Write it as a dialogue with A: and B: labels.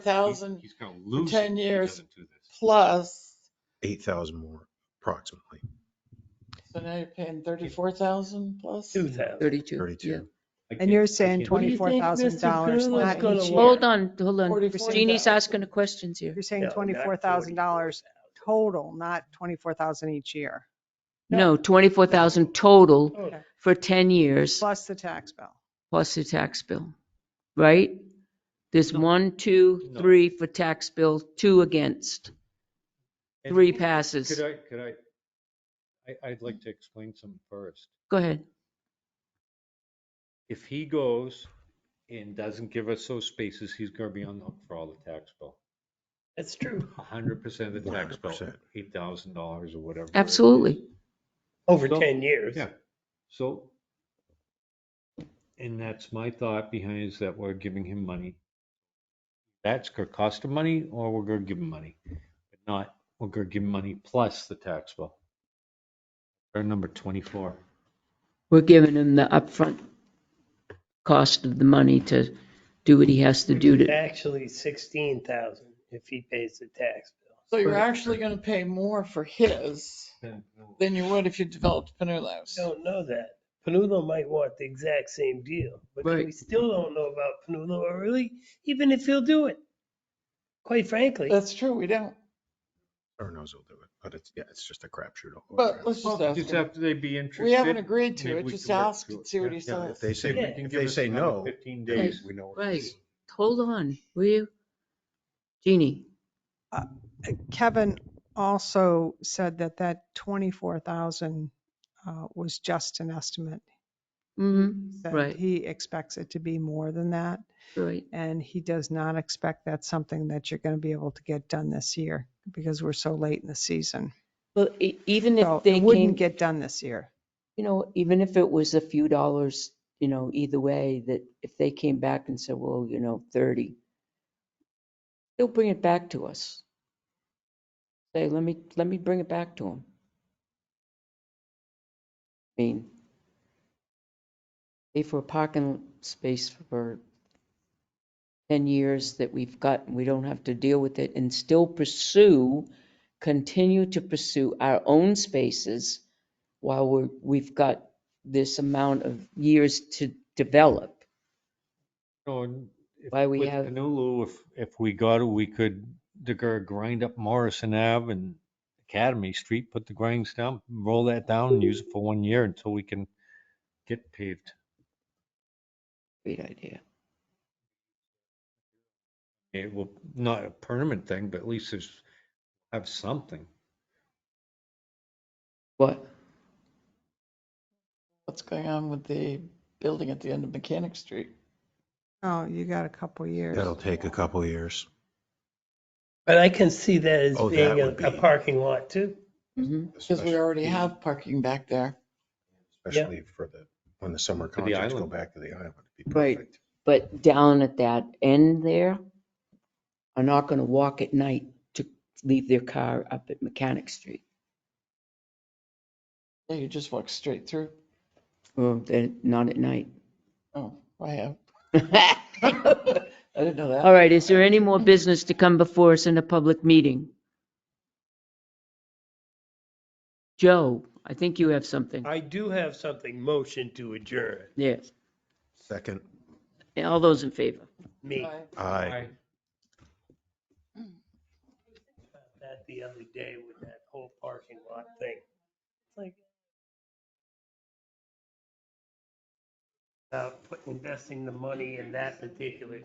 A: He's,
B: thousand
A: he's gonna lose.
B: 10
A: it if he
B: years.
A: doesn't do this.
B: plus,
C: eight thousand more approximately,
B: so now you're paying thirty-four thousand plus?
D: Two thousand.
E: Thirty-two, yeah.
C: thirty-two.
F: And you're saying
D: What do
F: twenty-four
E: think
F: thousand dollars
E: Grillo's
F: not
E: gonna
F: each
E: want?
F: year.
E: Hold on, hold on.
B: 44,000.
E: Christini's asking the questions here.
F: You're saying
D: No, not
F: twenty-four thousand dollars
D: 44,000.
F: total, not twenty-four thousand each year,
E: No, 24,000 total
D: Oh,
F: Okay.
E: for 10 years
F: plus the tax bill.
E: plus the tax bill, right? There's one, two,
A: No.
E: three for tax bill, two against,
A: And
E: three passes.
A: Could I, could I, I, I'd like to explain something first.
E: Go ahead.
A: If he goes and doesn't give us those spaces, he's gonna be on up for all the tax bill.
D: That's true.
A: A hundred percent of the tax bill,
C: 100%.
A: eight thousand dollars or whatever. it
E: Absolutely.
A: is.
D: Over
A: So-
D: ten years.
A: Yeah, so. And that's my thought behind is that we're giving him money. That's gonna cost him money or we're gonna give him money, but not, we're gonna give him money plus the tax bill. Or number twenty-four.
E: We're giving him the upfront cost of the money to do what he has to do to,
D: Actually sixteen thousand if he pays the tax
B: So you're actually gonna pay more for his than you would if you developed Pinellas.
D: bill. Don't know that. Panulo might want the exact same deal, but
A: Right.
D: we still don't know about Panulo or really, even if he'll do it. Quite frankly,
B: That's true, we don't,
C: Or knows he'll do it, but it's, yeah, it's just a crapshoot. all
B: but
C: around.
B: let's just
A: Well,
B: ask
A: Just
B: him.
A: after they be interested.
B: We haven't agreed to
A: maybe
B: it,
A: we
B: just
A: can work
B: ask
A: through
B: and
A: it.
B: see what he
A: Yeah.
C: Yeah, if
B: says.
C: they say,
D: Yeah.
A: Can
C: if
A: give
C: they
A: us
C: say
A: another
C: no,
A: Fifteen days, we know. what it
E: right.
A: is.
E: Hold on, will you? Jeannie,
F: Uh, Kevin also said that that twenty-four thousand uh, was just an estimate.
E: Mhm,
F: that
E: Right.
F: He expects it to be more than that,
E: right.
F: and he does not expect that's something that you're going to be able to get done this year because we're so late in the season.
E: Well, e- even
F: So
E: if they
F: it
E: came,
F: wouldn't get done this year.
E: you know, even if it was a few dollars, you know, either way, that if they came back and said, well, you know, 30, they'll bring it back to us. Say, let me, let me bring it back to them. I mean, pay for a parking space for 10 years that we've got, and we don't have to deal with it and still pursue, continue to pursue our own spaces while we're, we've got this amount of years to develop.
A: No, and if-
E: Why we
A: with
E: have-
A: Honolulu, if, if we got it, we could, they're gonna grind up Morrison Ave and Academy Street, put the grinds down, roll that down and use it for one year until we can get paved.
E: Great idea.
A: It will, not a permanent thing, but at least there's, have something.
E: What?
B: What's going on with the building at the end of Mechanic Street?
F: Oh, you got a couple years.
C: that'll take a couple years.
D: but I can see that as
C: Oh, that
D: being a,
C: would
D: a
C: be-
D: parking lot too.
C: Mm-hmm.
E: Mhm.
B: Because we already have parking back there.
C: Especially for the, when the summer
A: the
C: contracts go
A: island.
C: back to the island. it'd be
E: Right.
C: perfect.
E: But down at that end there, are not going to walk at night to leave their car up at Mechanic Street.
B: Yeah, you just walk straight through.
E: Well, they're not at night.
B: Oh, I have.
E: All
B: I didn't know that.
E: right, is there any more business to come before us in a public meeting? Joe, I think you have something.
D: I do have something, motion to adjourn,
E: Yes.
C: Second,
E: All those in favor?
D: me.
B: Bye.
C: aye.
D: that the other day with that whole parking lot thing. It's Like. uh, About put- investing the money in that particular